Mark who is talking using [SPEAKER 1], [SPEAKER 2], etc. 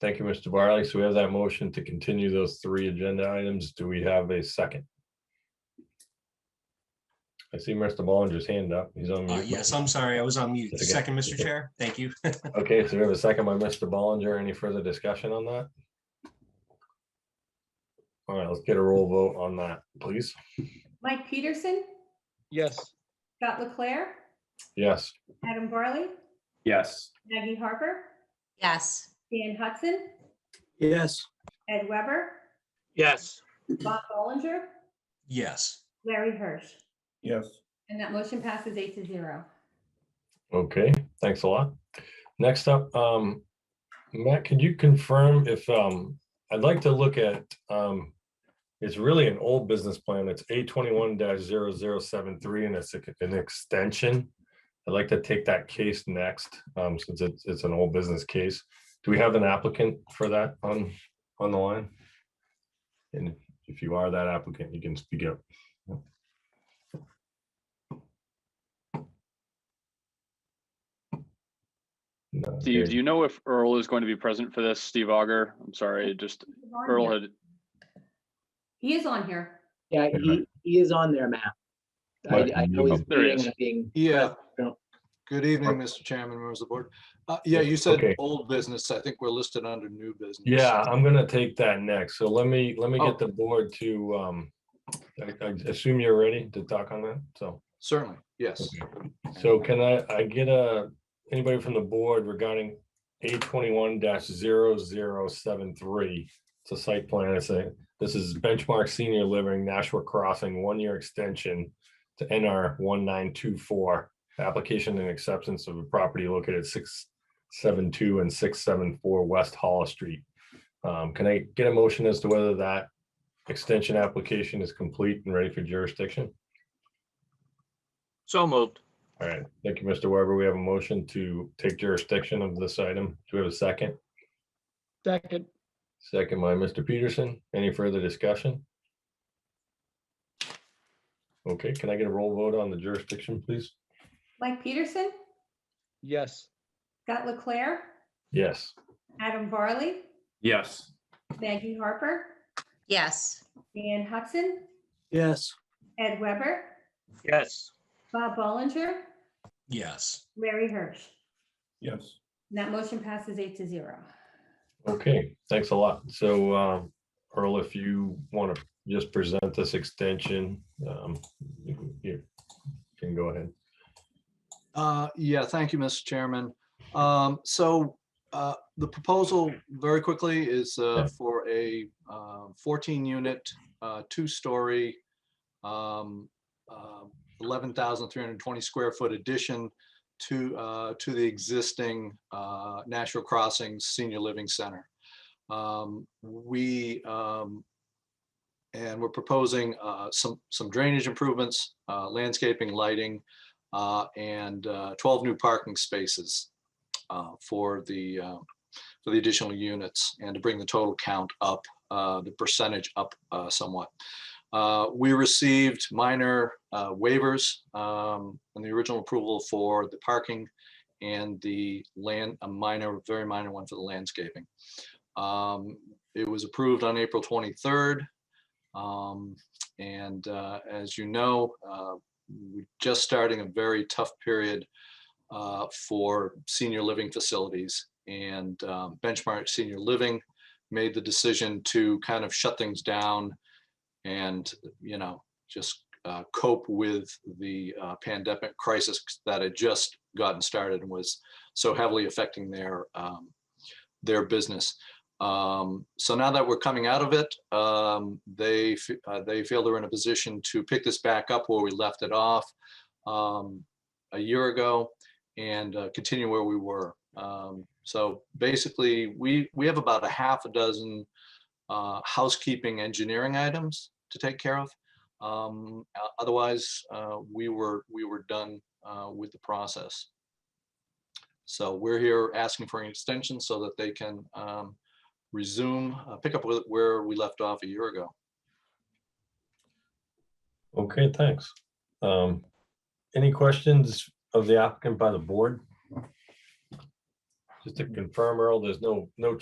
[SPEAKER 1] Thank you, Mr. Barley. So we have that motion to continue those three agenda items. Do we have a second? I see Mr. Ballinger's hand up. He's on
[SPEAKER 2] Uh,
[SPEAKER 1] mute.
[SPEAKER 2] Yes, I'm sorry, I was on mute.
[SPEAKER 1] That's okay.
[SPEAKER 2] Second, Mr. Chair, thank you.
[SPEAKER 1] Okay, so we have a second by Mr. Ballinger. Any further discussion on that? All right, let's get a roll vote on that, please.
[SPEAKER 3] Mike Peterson,
[SPEAKER 4] Yes.
[SPEAKER 3] Scott Leclair,
[SPEAKER 1] Yes,
[SPEAKER 3] Adam Barley,
[SPEAKER 4] Yes.
[SPEAKER 3] Maggie Harper,
[SPEAKER 5] yes,
[SPEAKER 3] Dan Hudson,
[SPEAKER 4] Yes.
[SPEAKER 3] Ed Weber,
[SPEAKER 4] Yes.
[SPEAKER 3] Bob Ballinger,
[SPEAKER 2] Yes,
[SPEAKER 3] Larry Hirsch.
[SPEAKER 4] Yes.
[SPEAKER 3] And that motion passes eight to zero.
[SPEAKER 1] okay, thanks a lot. Next up, um, Matt, could you confirm if, um, I'd like to look at, um, it's really an old business plan. It's A twenty-one 73 and it's a- an extension. I'd like to take that case next, um, since it's, it's an old business case. Do we have an applicant for that on, on the line? And if you are that applicant, you can speak up. No, okay.
[SPEAKER 6] Steve, do you know if Earl is going to be present for this? Steve Auger? I'm sorry, just
[SPEAKER 3] He's on
[SPEAKER 6] Earl
[SPEAKER 3] here.
[SPEAKER 6] had,
[SPEAKER 3] He is on here.
[SPEAKER 7] Yeah, he, he is on there, Matt. I,
[SPEAKER 1] Right,
[SPEAKER 7] I know he's
[SPEAKER 6] oh, there he
[SPEAKER 7] being,
[SPEAKER 6] is.
[SPEAKER 7] being,
[SPEAKER 1] Uh,
[SPEAKER 8] Yeah.
[SPEAKER 7] Yeah.
[SPEAKER 8] Good evening, Mr. Chairman, members of the board. Uh, Yeah, you said
[SPEAKER 1] Okay.
[SPEAKER 8] old business. I think we're listed under new business.
[SPEAKER 1] Yeah, I'm gonna take that next. So let me, let me
[SPEAKER 8] Oh.
[SPEAKER 1] get the board to, um, I, I assume you're ready to talk on that, so.
[SPEAKER 8] Certainly, yes.
[SPEAKER 1] So can I, I get a, anybody from the board regarding A twenty-one 73 It's a site plan, I say, this is Benchmark Senior Living Nashua Crossing, one-year extension to NR one nine two four, application and acceptance of a property located six seven two and six seven four West Hollow Street. Um, can I get a motion as to whether that extension application is complete and ready for jurisdiction?
[SPEAKER 4] So moved.
[SPEAKER 1] All right, thank you, Mr. Weber. We have a motion to take jurisdiction of this item. Do we have a second?
[SPEAKER 4] Second.
[SPEAKER 1] Second by Mr. Peterson. Any further discussion? Okay, can I get a roll vote on the jurisdiction, please?
[SPEAKER 3] Mike Peterson,
[SPEAKER 4] Yes.
[SPEAKER 3] Scott Leclair,
[SPEAKER 1] Yes,
[SPEAKER 3] Adam Barley,
[SPEAKER 4] Yes.
[SPEAKER 3] Maggie Harper,
[SPEAKER 5] yes,
[SPEAKER 3] Dan Hudson,
[SPEAKER 4] Yes.
[SPEAKER 3] Ed Weber,
[SPEAKER 4] Yes.
[SPEAKER 3] Bob Ballinger,
[SPEAKER 2] yes,
[SPEAKER 3] Larry Hirsch.
[SPEAKER 4] Yes.
[SPEAKER 3] And that motion passes eight to zero.
[SPEAKER 1] okay, thanks a lot. So um, Earl, if you want to just present this extension, um, you you can go ahead.
[SPEAKER 8] Uh, Yeah, thank you, Mr. Chairman. Um, So uh, the proposal very quickly is uh, for a uh, 14-unit, uh, two-story, um, uh, 11,320 square foot addition to, uh, to the existing uh, Nashua Crossings Senior Living Center. Um, We, um, and we're proposing uh, some, some drainage improvements, uh, landscaping, lighting, uh, and uh, 12 new parking spaces uh, for the, uh, for the additional units and to bring the total count up, uh, the percentage up uh, somewhat. Uh, We received minor uh, waivers um, in the original approval for the parking and the land, a minor, very minor one for the landscaping. Um, It was approved on April 23rd. Um, And uh, as you know, uh, we're just starting a very tough period uh, for senior living facilities. And um, Benchmark Senior Living made the decision to kind of shut things down and, you know, just uh, cope with the uh, pandemic crisis that had just gotten started and was so heavily affecting their, um, their business. Um, so now that we're coming out of it, um, they, f- uh, they feel they're in a position to pick this back up where we left it off, um, a year ago and, uh, continue where we were. Um, so basically, we, we have about a half a dozen, uh, housekeeping engineering items to take care of. Um, o- otherwise, uh, we were, we were done, uh, with the process. So we're here asking for an extension so that they can, um, resume, uh, pick up with where we left off a year ago.
[SPEAKER 1] Okay, thanks. Um, Any questions of the applicant by the board? Just to confirm, Earl, there's no, no